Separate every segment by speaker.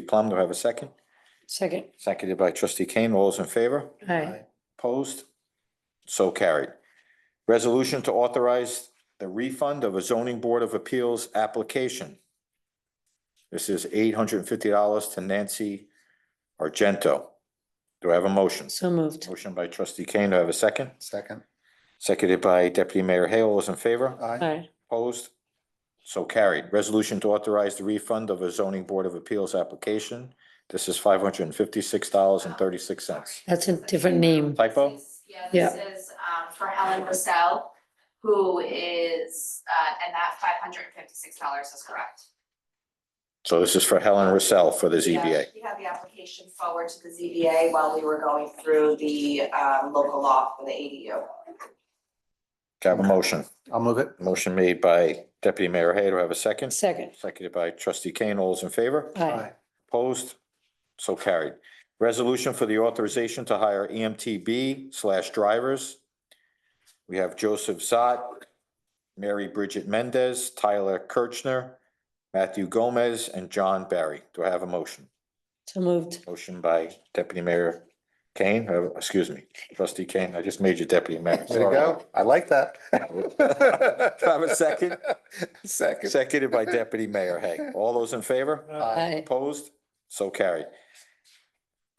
Speaker 1: trustee Plum, do I have a second?
Speaker 2: Second,
Speaker 1: Seconded by trustee Kane. All those in favor?
Speaker 2: aye.
Speaker 1: Opposed? So carried. Resolution to authorize the refund of a zoning board of appeals application. This is eight hundred and fifty dollars to Nancy Argento. Do I have a motion?
Speaker 2: So moved.
Speaker 1: Motion by trustee Kane. Do I have a second?
Speaker 3: Second.
Speaker 1: Seconded by deputy mayor Hale. All those in favor?
Speaker 3: Aye.
Speaker 2: Aye.
Speaker 1: Opposed? So carried. Resolution to authorize the refund of a zoning board of appeals application. This is five hundred and fifty-six dollars and thirty-six cents.
Speaker 2: That's a different name.
Speaker 1: Typo?
Speaker 4: Yeah, this is um for Helen Rossell, who is, uh, and that five hundred and fifty-six dollars is correct.
Speaker 1: So this is for Helen Russell for the
Speaker 4: Yeah,
Speaker 1: ZBA.
Speaker 4: She had the application forward to the ZBA while we were going through the um local law for the ADU.
Speaker 1: Can I Have a motion.
Speaker 3: I'll move it.
Speaker 1: Motion made by deputy mayor Hay. Do I have a second?
Speaker 2: Second,
Speaker 1: Seconded by trustee Kane. All those in favor?
Speaker 2: aye.
Speaker 1: Opposed? So carried. Resolution for the authorization to hire E EMTB slash drivers. We have Joseph Zott, Mary Bridget Mendez, Tyler Kirchner, Matthew Gomez, and John Barry. Do I have a motion?
Speaker 2: So moved.
Speaker 1: Motion by deputy mayor Kane, uh, excuse me, trustee Kane. I just made you deputy mayor.
Speaker 3: There you go. I like that.
Speaker 1: Do I Have a second?
Speaker 3: Second.
Speaker 1: Seconded by deputy mayor Hay. All those in favor?
Speaker 2: Aye.
Speaker 1: Opposed? So carried.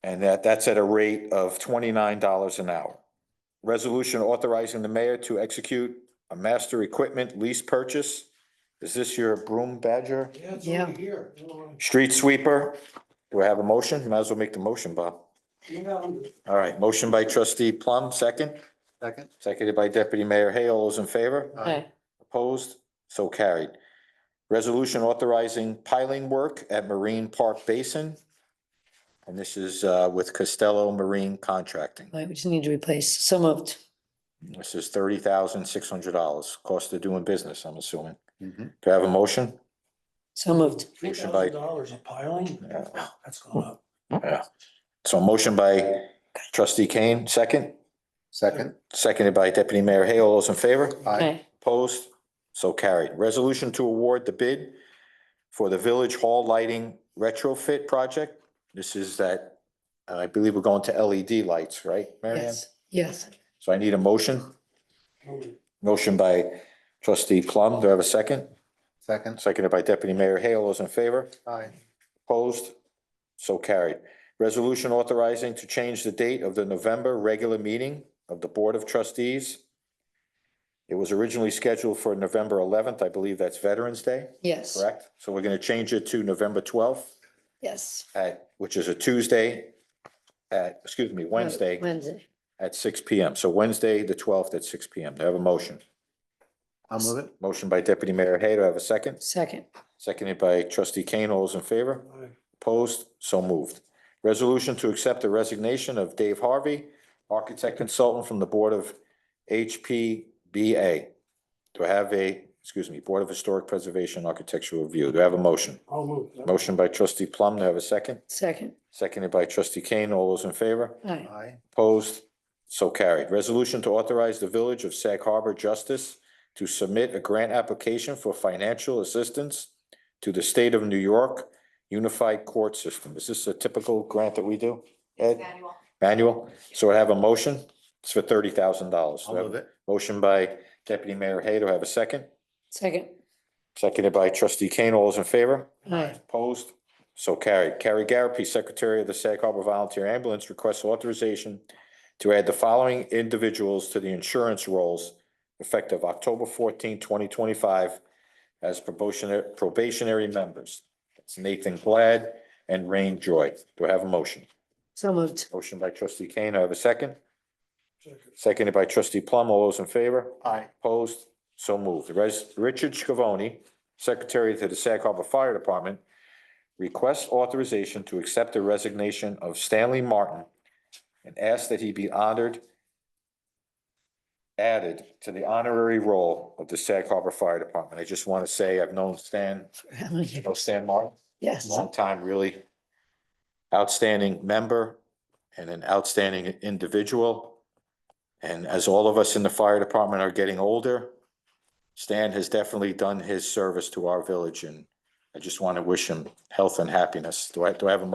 Speaker 1: And that, that's at a rate of twenty-nine dollars an hour. Resolution authorizing the mayor to execute a master equipment lease purchase. Is this your broom badger?
Speaker 2: Yeah.
Speaker 1: Street sweeper? Do I have a motion? Might as well make the motion, Bob. All right, motion by trustee Plum, second,
Speaker 3: Second.
Speaker 1: seconded by deputy mayor Hay. All those in favor?
Speaker 2: Aye.
Speaker 1: Opposed? So carried. Resolution authorizing piling work at Marine Park Basin. And this is uh, with Costello Marine Contracting.
Speaker 2: Right, we just need to replace. So moved.
Speaker 1: This is thirty thousand six hundred dollars, cost of doing business, I'm assuming.
Speaker 3: Mhm.
Speaker 1: Do I have a motion?
Speaker 2: So moved.
Speaker 5: Three
Speaker 1: Motion by-
Speaker 5: thousand dollars a piling?
Speaker 1: Yeah.
Speaker 5: Wow, That's going up.
Speaker 1: Yeah. So motion by trustee Kane, second,
Speaker 3: Second.
Speaker 1: seconded by deputy mayor Hay. All those in favor?
Speaker 3: Aye.
Speaker 2: Aye.
Speaker 1: Opposed? So carried. Resolution to award the bid for the Village Hall Lighting Retrofit Project. This is that, uh, I believe we're going to LED lights, right, Mary Ann?
Speaker 2: Yes, yes.
Speaker 1: So I need a motion. Motion by trustee Plum. Do I have a second?
Speaker 3: Second.
Speaker 1: Seconded by deputy mayor Hale. All those in favor?
Speaker 3: Aye.
Speaker 1: Opposed? So carried. Resolution authorizing to change the date of the November regular meeting of the Board of Trustees. It was originally scheduled for November eleventh. I believe that's Veterans Day,
Speaker 2: Yes,
Speaker 1: correct? So we're gonna change it to November twelfth
Speaker 2: yes.
Speaker 1: at, which is a Tuesday at, excuse me, Wednesday
Speaker 2: Wednesday.
Speaker 1: at six P M. So Wednesday, the twelfth at six P M. Do I have a motion?
Speaker 3: I'll move it.
Speaker 1: Motion by Deputy Mayor Hay. Do I have a second?
Speaker 2: Second,
Speaker 1: Seconded by Trustee Kane. All those in favor?
Speaker 5: Aye.
Speaker 1: Opposed? So moved. Resolution to accept the resignation of Dave Harvey, Architect Consultant from the Board of HPBA. Do I have a, excuse me, Board of Historic Preservation Architectural Review? Do I have a motion?
Speaker 5: I'll move. that.
Speaker 1: Motion by trustee Plum. Do I have a second?
Speaker 2: second,
Speaker 1: Seconded by trustee Kane. All those in favor?
Speaker 2: aye.
Speaker 3: Aye.
Speaker 1: Opposed? So carried. Resolution to authorize the Village of Sag Harbor Justice to submit a grant application for financial assistance to the State of New York Unified Court System. Is this a typical grant that we do? Ed,
Speaker 4: Manuel.
Speaker 1: manual? So I have a motion. It's for thirty thousand dollars.
Speaker 3: I'll move it.
Speaker 1: Motion by Deputy Mayor Hay. Do I have a second?
Speaker 2: Second,
Speaker 1: Seconded by Trustee Kane. All those in favor?
Speaker 2: aye.
Speaker 1: Opposed? So carried. Carrie Garapi, Secretary of the Sag Harbor Volunteer Ambulance, requests authorization to add the following individuals to the insurance rolls effective October 14, twenty twenty-five as probationary, probationary members. That's Nathan Glad and Rain Joy. Do I have a motion?
Speaker 2: So moved.
Speaker 1: Motion by trustee Kane. Do I have a second.
Speaker 5: Second.
Speaker 1: Seconded by trustee Plum. All those in favor?
Speaker 3: Aye.
Speaker 1: Opposed? So moved. Res- Richard Scavone, Secretary to the Sag Harbor Fire Department, requests authorization to accept the resignation of Stanley Martin and asks that he be honored, added to the honorary role of the Sag Harbor Fire Department. I just want to say I've known Stan, you know Stan Martin,
Speaker 2: Yes,
Speaker 1: long time, really outstanding member and an outstanding individual. And as all of us in the fire department are getting older, Stan has definitely done his service to our village and I just want to wish him health and happiness. Do I, do I have a motion?